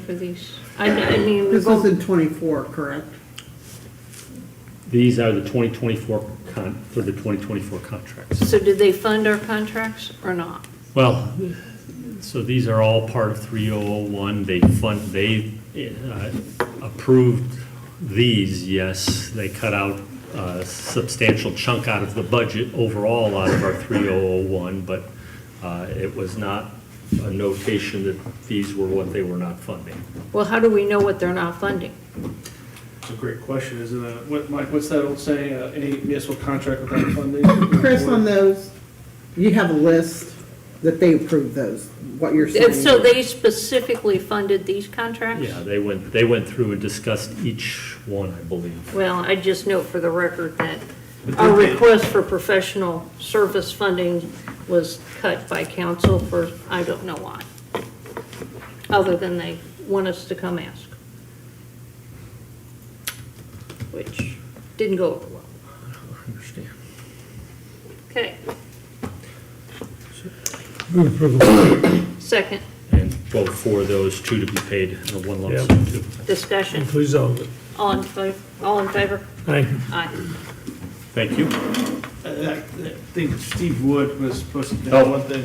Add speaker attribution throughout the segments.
Speaker 1: for these? I mean, I mean, we
Speaker 2: This is
Speaker 1: go,
Speaker 2: in twenty-four, correct?
Speaker 3: These are the 2024 con, for the 2024 contracts.
Speaker 1: so did they fund our contracts or not?
Speaker 3: Well, so these are all part of 3001. They fund, they uh, approved these, yes. They cut out a substantial chunk out of the budget overall out of our 3001, but uh, it was not a notation that these were what they were not funding.
Speaker 1: Well, how do we know what they're not funding?
Speaker 4: It's a great question, isn't it? What, Mike, what's that old saying, uh, any municipal contract without funding?
Speaker 2: Chris, on those, you have a list that they approve those, what you're saying.
Speaker 1: And so they specifically funded these contracts?
Speaker 3: Yeah, they went, they went through and discussed each one, I believe.
Speaker 1: Well, I just note for the record that
Speaker 4: But
Speaker 1: our
Speaker 4: they did.
Speaker 1: request for professional service funding was cut by council for, I don't know why, other than they want us to come ask, which didn't go over well.
Speaker 3: I understand.
Speaker 1: Okay. Second,
Speaker 3: And vote for those two to be paid in a one lump
Speaker 5: Yeah.
Speaker 3: sum too.
Speaker 1: discussion,
Speaker 5: Please, all of it.
Speaker 1: all in favor, all in favor?
Speaker 5: Aye.
Speaker 1: Aye.
Speaker 3: Thank you.
Speaker 4: I I- I think Steve Wood was supposed to know
Speaker 3: Oh.
Speaker 4: one thing.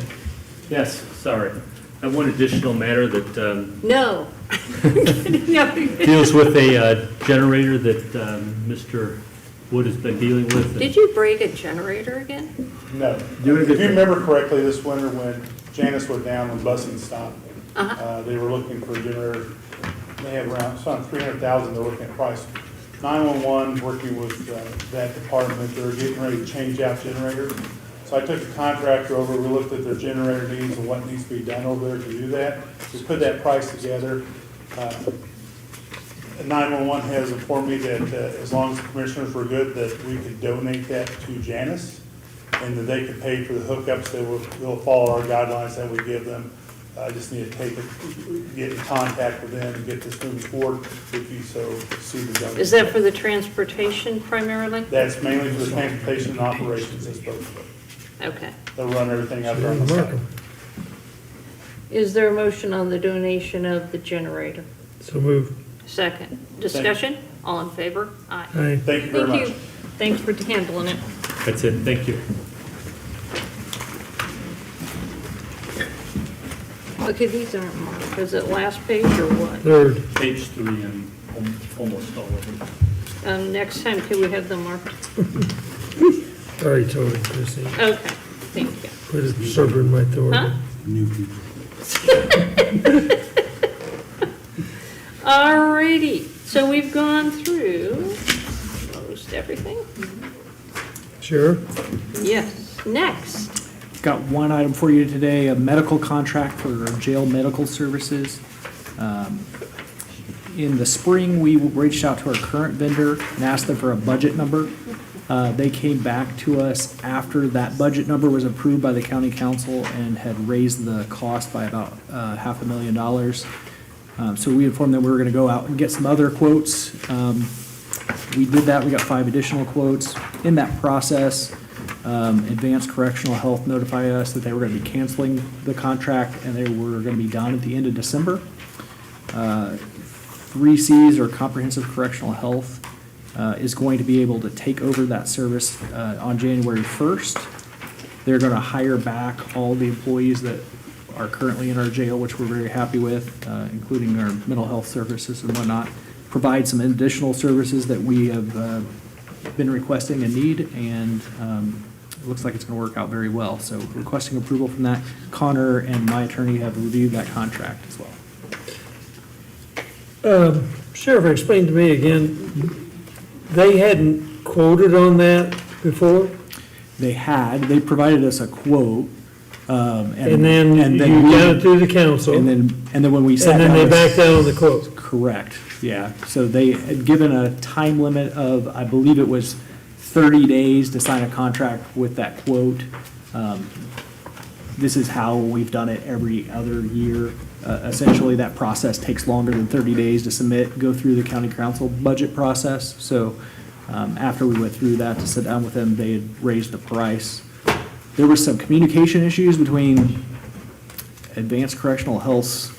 Speaker 3: Yes, sorry. I have one additional matter that um,
Speaker 1: No. No.
Speaker 3: deals with a uh, generator that um, Mr. Wood has been dealing with.
Speaker 1: Did you break a generator again?
Speaker 6: No.
Speaker 3: Do it
Speaker 6: If
Speaker 3: again.
Speaker 6: you remember correctly, this winter when Janice went down, when busing stopped, uh, they were looking for a generator. They had around, some three hundred thousand, they're looking at price. Nine-one-one, working with uh, that department, they're getting ready to change out generator. So I took the contractor over, we looked at their generator needs and what needs to be done over there to do that. We put that price together. Uh, 911 has informed me that uh, as long as the commissioners were good, that we could donate that to Janice, and that they could pay for the hookups, they will, they'll follow our guidelines that we give them. I just need to take, it- get in contact with them and get this moving forward, if you so see the donation.
Speaker 1: Is that for the transportation primarily?
Speaker 6: That's mainly for the transportation and operations, that's both,
Speaker 1: Okay.
Speaker 6: they'll run everything out there on the site.
Speaker 1: Is there a motion on the donation of the generator?
Speaker 5: So moved.
Speaker 1: Second. Discussion? All in favor? Aye.
Speaker 5: Aye.
Speaker 6: Thank you very
Speaker 1: Thank
Speaker 6: much.
Speaker 1: you. Thanks for handling it.
Speaker 3: That's it, thank you.
Speaker 1: Okay, these aren't marked. Is it last page or what?
Speaker 5: Third.
Speaker 3: Page three, I'm al- almost all of it.
Speaker 1: Um, next time, can we have them marked?
Speaker 5: Sorry, Tony, Chrissy.
Speaker 1: Okay, thank you.
Speaker 5: Put a server in my
Speaker 1: Huh?
Speaker 5: authority.
Speaker 1: Alrighty, so we've gone through almost everything?
Speaker 5: Sure.
Speaker 1: Yes. Next,
Speaker 7: Got one item for you today, a medical contract for jail medical services. Um, In the spring, we reached out to our current vendor and asked them for a budget number. Uh, They came back to us after that budget number was approved by the county council and had raised the cost by about uh, half a million dollars. Um, So we informed them we were going to go out and get some other quotes. Um, we did that, we got five additional quotes. In that process, um, Advanced Correctional Health notified us that they were gonna be canceling the contract, and they were gonna be done at the end of December. Uh, Three Cs, or Comprehensive Correctional Health, uh, is going to be able to take over that service uh, on January first. They're gonna hire back all the employees that are currently in our jail, which we're very happy with, uh, including our mental health services and whatnot. Provide some additional services that we have uh, been requesting and need, and um, it looks like it's gonna work out very well. So requesting approval from that. Connor and my attorney have reviewed that contract as well.
Speaker 5: Um, Sheriff, explain to me again, they hadn't quoted on that before?
Speaker 7: They had, they provided us a quote. um,
Speaker 5: And then
Speaker 7: and then
Speaker 5: you
Speaker 7: we-
Speaker 5: got it through the council,
Speaker 7: And
Speaker 5: and
Speaker 7: then, and then when we sat down.
Speaker 5: then they
Speaker 7: with-
Speaker 5: backed out on the quote.
Speaker 7: Correct, yeah. So they had given a time limit of, I believe it was 30 days to sign a contract with that quote. Um, This is how we've done it every other year. Uh, Essentially, that process takes longer than 30 days to submit, go through the county council budget process. So um, after we went through that to sit down with them, they had raised the price. There were some communication issues between Advanced Correctional Health's